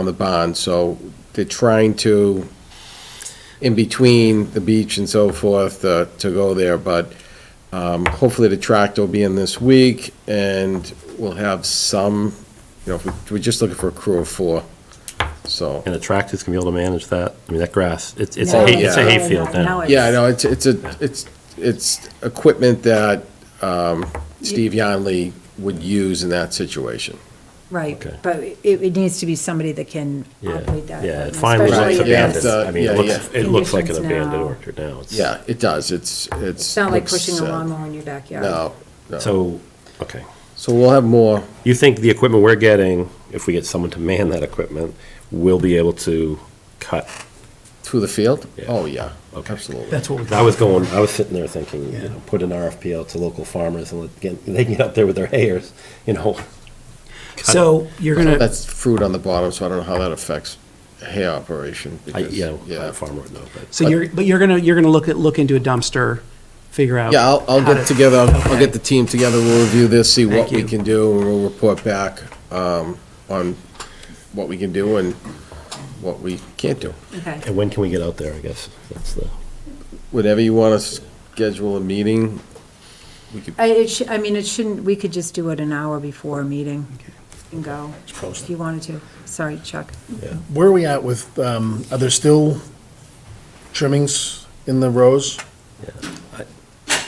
on the bond, so they're trying to, in between the beach and so forth, uh, to go there, but um, hopefully the tractor will be in this week, and we'll have some, you know, if we- we're just looking for a crew of four, so. And the tractors can be able to manage that. I mean, that grass, it's, it's No, a hay, it's a yeah. hayfield Now now. it's- Yeah, I know, it's, it's, a it's, it's equipment that um, Steve Yonley would use in that situation. Right, Okay. but it, it needs to to be somebody that can Yeah, operate that. yeah, it equipment, finally especially looks Right, yeah, it's, abandoned. uh, I mean, yeah, it looks, yeah. it looks like an Conditions now. abandoned orchard now. It's- Yeah, it does, it's, it's. It's not like looks, pushing uh, a lawnmower in your backyard. No, no. So, okay. So we'll have more, You think the equipment we're getting, if we get someone to man that equipment, will be able to cut? through the field? Yeah. Oh, yeah, Okay. absolutely. That's what we, I was going, I was sitting there thinking, you Yeah. know, put an RFP out to local farmers and let, get- they can get up there with their hayers, you know. so you're gonna, That's fruit on the bottom, so I don't know how that affects hay operation. I, because- you know, I'm Yeah, a farmer would know, but. so you're, but you're gonna, you're gonna look at, look into a dumpster, figure out. yeah, I'll, I'll how get to- together, I'll- I'll Okay. get the team together, we'll review this, see what Thank we you. can do, and we'll report back um, on what we can do and what we can't do. Okay, And when can we get out there, I guess? That's the, Whenever you want to schedule a meeting, we could, I, it should, I mean, it shouldn't, we could just do it an hour before a meeting and go, if you wanted to. Sorry, Chuck. Where are we at with, um, are there still trimmings in the rows?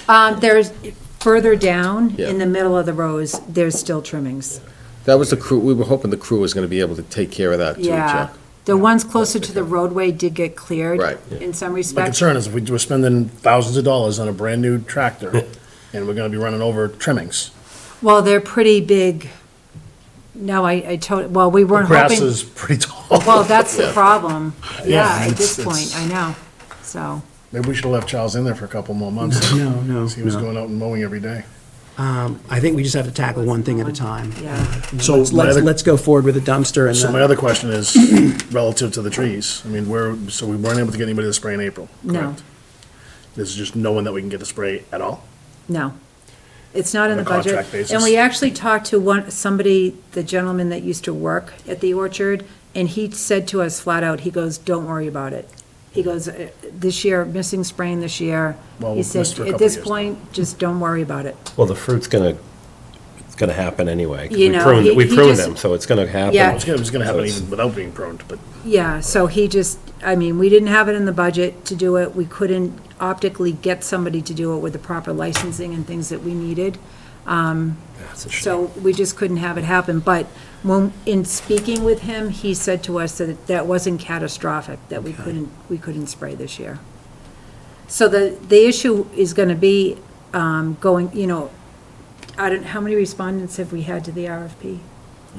Um, there's, further down, Yeah. in the middle of the rows, there's still trimmings. that was the crew, we were hoping the crew was going to be able to take care of that too, Yeah. Chuck. The ones closer to the roadway did get cleared. Right. In some My respects. concern is if we we're spending thousands of dollars on a brand-new tractor, and we're gonna be running over trimmings. Well, they're pretty big. No, I, I told, well, we The weren't hoping. grass is pretty tall. Well, that's the problem. Yeah, Yeah, at this it's- point, it's- I know, so. Maybe we should've left Charles in there for a couple more months. No, no, 'cause He was no. going out and mowing every day. Um, I think we just have to tackle one thing at a time. Um, Um, Yeah. So Let's, my let's other- let's go forward with the dumpster and So my the, other question is relative to the trees. I mean, where, so we weren't able to get anybody to spray in April, No. correct? There's just no one that we can get to spray at all? No, it's not in On the a budget. contract basis. And we actually talked to one, somebody, the gentleman that used to work at the orchard, and he said to us flat out, he goes, don't worry about it. He goes, "Uh, this year, missing sprain this year. Well, He we've said, missed for a at couple this years now." point, just don't worry about it. well, the fruit's gonna, it's gonna happen anyway. 'cause You we know, pruned- he- We he pruned just- them, so it's gonna happen. Yeah. It was gonna- it was gonna happen So it's- even without being pruned, but Yeah, so he just, I mean, we didn't have it in the budget to do it. We couldn't optically get somebody to do it with the proper licensing and things that we needed. That's a shame. So we just couldn't have it happen, but when, in speaking with him, he said to us that that wasn't catastrophic, that we couldn't, we couldn't spray this year. So the, the issue is gonna be, um, going, you know, I don't, how many respondents have we had to the RFP?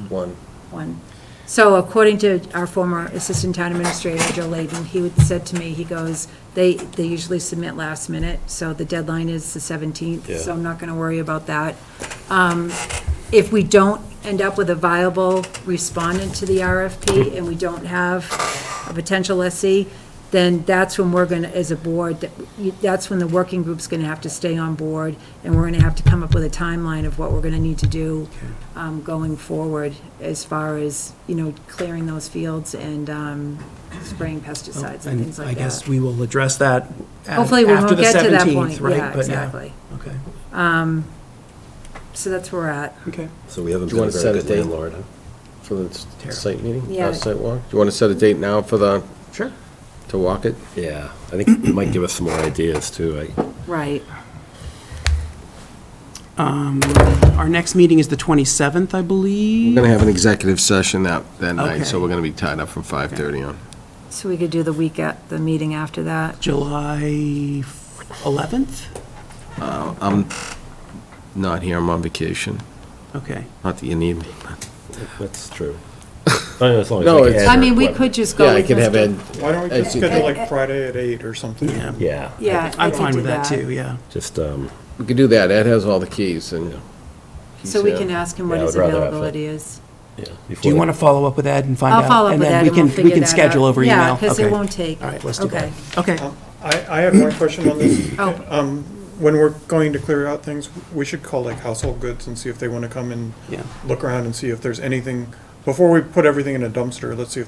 One. One. So according to our former Assistant Town Administrator, Joe Layden, he would, said to me, he goes, they, they usually submit last minute, so the deadline is the seventeenth, so Yeah. I'm not gonna worry about that if we don't end up with a viable respondent to the RFP and we don't have a potential lessee, then that's when we're gonna, as a board, that you- that's when the working group's gonna have to stay on board, and we're gonna have to come up with a timeline of what we're gonna need to do um, going forward as far as, you know, clearing those fields and um, spraying pesticides and and things I like guess that. we will address that at- Hopefully, we after won't the get to that 17th, point. right? Yeah, But yeah, exactly. Okay, So that's where we're at. okay. So we haven't Do you been wanna a set very a good date? landlord, huh? For the s- site meeting? Yeah. uh, Site walk? Do you want to set a date now for the, Sure. to walk it? Yeah, I think it might give us some more ideas too. I- Right. Our next meeting is the 27th, I We're believe. going to have an executive session that, that night, so Okay. we're going to be tied up from 5:30 on. So we could do the week at, the meeting after that. July 11th? I'm not here, I'm on vacation. Okay. Not that you need me. That's true. I mean, as long as No, we it's- add I our mean, we equipment. could just go Yeah, I with can have Mr. Ed, Why don't we As just you- schedule like Friday at eight or something? Yeah, Yeah. Yeah. I I'm could fine do with that too, yeah. Just, um, we could do that, Ed has all the keys, and he's So we here. can ask him what Yeah, I his would rather have availability is. yeah. Do you want to follow up with Ed and find out? I'll follow up with that then we and we'll can figure that out. we can schedule over email? Yeah, because it Okay. won't take. All right, let's do that. Okay. Okay, Um, I, I have one question on this. Oh. Um, When we're going to clear out things, we should call like household goods and see if they want to come and yeah. look around and see if there's anything before we put everything in a dumpster, let's see if there's